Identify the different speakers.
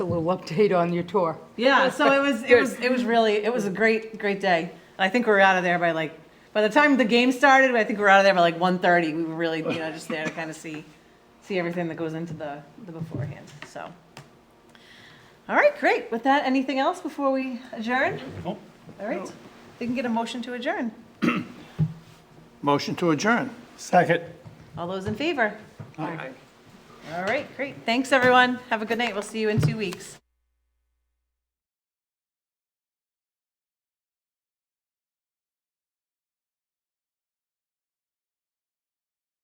Speaker 1: A little update on your tour.
Speaker 2: Yeah, so it was it was it was really it was a great great day. And I think we were out of there by like by the time the game started, I think we were out of there by like 1.30. We were really you know just there to kind of see see everything that goes into the the beforehand. So. All right, great. With that, anything else before we adjourn?
Speaker 3: Nope.
Speaker 2: All right. We can get a motion to adjourn.
Speaker 4: Motion to adjourn.
Speaker 3: Second.
Speaker 2: All those in favor? All right, great. Thanks, everyone. Have a good night. We'll see you in two weeks.